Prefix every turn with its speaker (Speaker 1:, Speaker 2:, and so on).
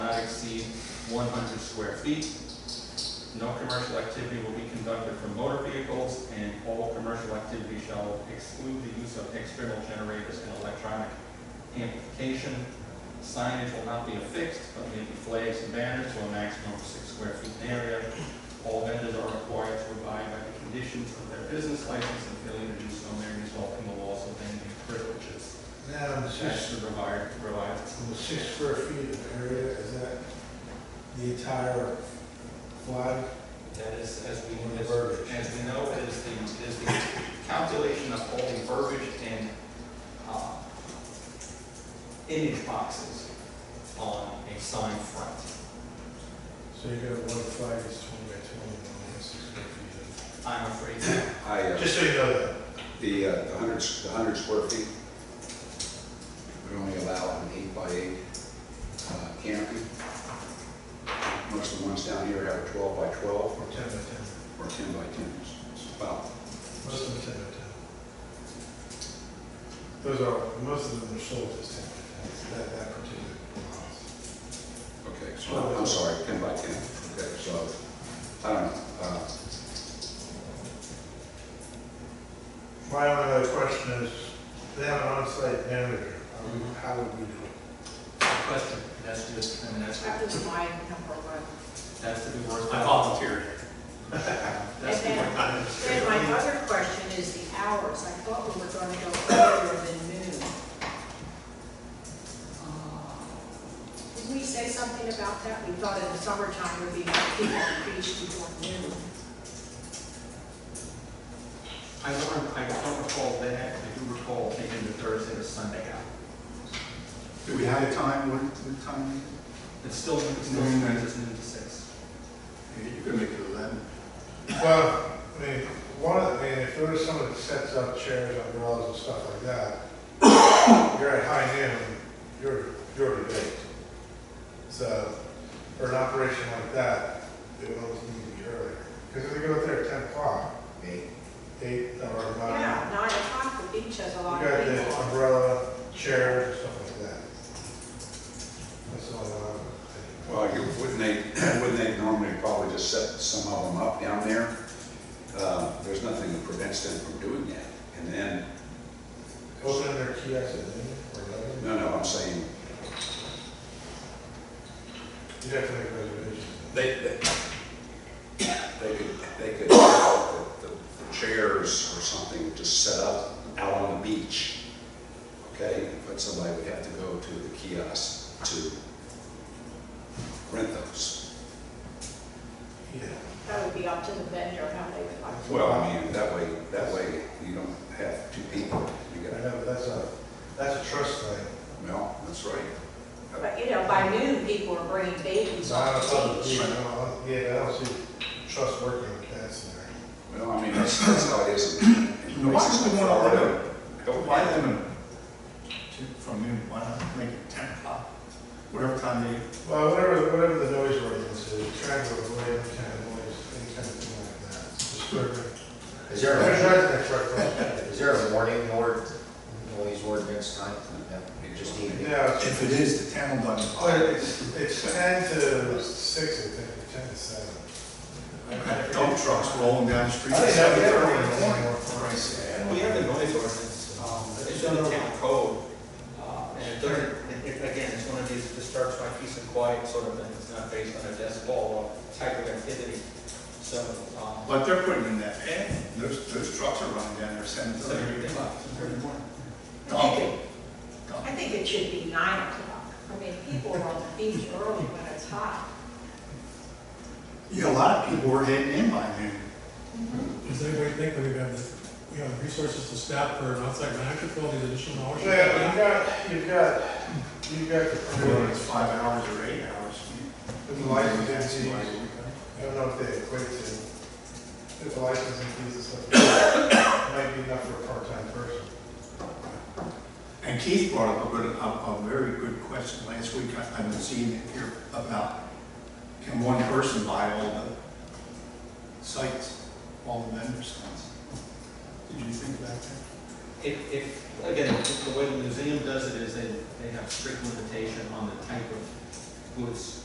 Speaker 1: one hundred square feet. No commercial activity will be conducted from motor vehicles, and all commercial activity shall exclude the use of external generators and electronic amplification. Signage will not be affixed, but may be flags and banners to a maximum of six square feet in area. All vendors are required to abide by the conditions of their business license, and failure to do so may result in the loss of any privileges.
Speaker 2: Now, the
Speaker 1: That's
Speaker 2: six,
Speaker 1: the required, required.
Speaker 2: the six square feet of area, is that the entire flag?
Speaker 1: That is, as we,
Speaker 2: Or the
Speaker 1: as,
Speaker 2: verbiage.
Speaker 1: as we know, is the, is the calculation of all the verbiage and, uh, image boxes on a sign front.
Speaker 2: So you got one flag is twenty by twenty, and one has six square feet.
Speaker 1: I'm afraid that
Speaker 3: I, uh,
Speaker 2: Just so you know that.
Speaker 3: the, uh, the hundred, the hundred square feet would only allow an eight by eight uh, canopy. Most of the ones down here have a twelve by twelve
Speaker 2: Or ten by ten,
Speaker 3: or ten by ten. It's about
Speaker 2: most of them ten by ten. Those are, most of them are sold as ten by ten, It's that, that particular. model.
Speaker 3: Okay, so, I'm sorry, ten by ten, okay, so, I don't know, uh,
Speaker 2: My only other question is, they have an on-site manager, Are we- how would we do it?
Speaker 1: question, that's just, I mean, that's,
Speaker 4: That was my number one.
Speaker 1: that's to be worked. I volunteered. That's the
Speaker 4: And
Speaker 1: point.
Speaker 4: Then my other question is the hours. I thought we were going to go earlier than noon. Uh, Didn't we say something about that? We thought in the summertime would be more people on the beach before noon.
Speaker 1: I don't, I don't recall that, I do recall taking the Thursday to Sunday out.
Speaker 3: do we have a time, what, what time?
Speaker 1: It's still, it's still, it's noon to six.
Speaker 3: You can make it eleven.
Speaker 2: Well, I mean, one of, I mean, if there was someone that sets up chairs, umbrellas and stuff like that, you're at high noon, you're, you're already late. So, for an operation like that, it would always need to be earlier. Because if they go out there at ten o'clock,
Speaker 3: Eight.
Speaker 2: eight or
Speaker 4: Yeah,
Speaker 2: nine,
Speaker 4: nine o'clock, the beach has a
Speaker 2: you
Speaker 4: lot of
Speaker 2: got the
Speaker 4: people.
Speaker 2: umbrella, chairs and stuff like that. That's all I would think.
Speaker 3: Well, you, wouldn't they, wouldn't they normally probably just set some of them up down there? Uh, there's nothing that prevents them from doing that, and then,
Speaker 2: Open their kiosks at noon or eleven,
Speaker 3: no, no, I'm saying,
Speaker 2: you'd have to make reservations.
Speaker 3: they, they, they could, they could, the, the chairs or something just set up out on the beach, okay? But somebody would have to go to the kiosk to rent those.
Speaker 2: Yeah.
Speaker 4: That would be up to the vendor, how they would like. to-
Speaker 3: Well, I mean, that way, that way you don't have two people. You
Speaker 2: I
Speaker 3: got,
Speaker 2: know, but that's a, that's a trust thing.
Speaker 3: well, that's right.
Speaker 4: But, you know, by noon, people are bringing babies
Speaker 2: So I
Speaker 4: on
Speaker 2: don't
Speaker 4: the
Speaker 2: know,
Speaker 4: beach.
Speaker 2: yeah, I don't- yeah, I don't see trust working with that scenario.
Speaker 3: Well, I mean, that's, that's how it is in in
Speaker 5: Why
Speaker 3: places
Speaker 5: do
Speaker 3: like
Speaker 5: we want to
Speaker 3: Florida.
Speaker 5: limit, why limit to, from noon, why not make it ten o'clock? Whatever time they,
Speaker 2: Well, whatever, whatever the noise ordinance is, trying to avoid any kind of noise, any kind of thing like that. Disturbing.
Speaker 6: Is there,
Speaker 2: There's
Speaker 6: a-
Speaker 2: residents right across the
Speaker 6: is there a warning or noise ordinance time? No, You just need to
Speaker 2: street.
Speaker 6: be.
Speaker 2: Yeah, it's-
Speaker 5: if it is the ten, eleven
Speaker 2: but
Speaker 5: o'clock.
Speaker 2: it's, it's ten to six, I think, or ten to seven.
Speaker 5: Dump trucks rolling down the street.
Speaker 2: I think that would be
Speaker 5: Seven
Speaker 2: early in the morning.
Speaker 5: For Christ's sake.
Speaker 1: We have a noise ordinance, um, it's in the town code, uh, and it doesn't, it- it- again, it's one of these, this starts by peace and quiet sort of thing, it's not based on a decibel or type of activity, so, um,
Speaker 5: But they're putting in that pad, those, those trucks are running down there seven
Speaker 1: so
Speaker 5: thirty,
Speaker 1: every
Speaker 5: eight
Speaker 1: day.
Speaker 5: o'clock.
Speaker 4: I think
Speaker 5: Dump,
Speaker 4: it- I think it should be nine o'clock. I mean, people are on the beach early when it's hot.
Speaker 5: Yeah, a lot of people were heading in by noon.
Speaker 7: Does anybody think that we have the, we have the resources to staff for an outside manager for all these additional hours?
Speaker 2: Yeah, you've got, you've got, you've got
Speaker 5: Whether
Speaker 2: the,
Speaker 5: it's five hours or eight hours.
Speaker 2: the lighting density.
Speaker 5: Why-
Speaker 2: I don't know if they equate to, if the licensing fees and stuff, might be enough for a part-time person.
Speaker 5: And Keith brought up a good, a, a very good question last week, I- I've been seeing it here about, can one person buy all the sites, all the vendor sites? Did you think about that?
Speaker 1: If, if, again, if the way the museum does it is they, they have strict limitation on the type of goods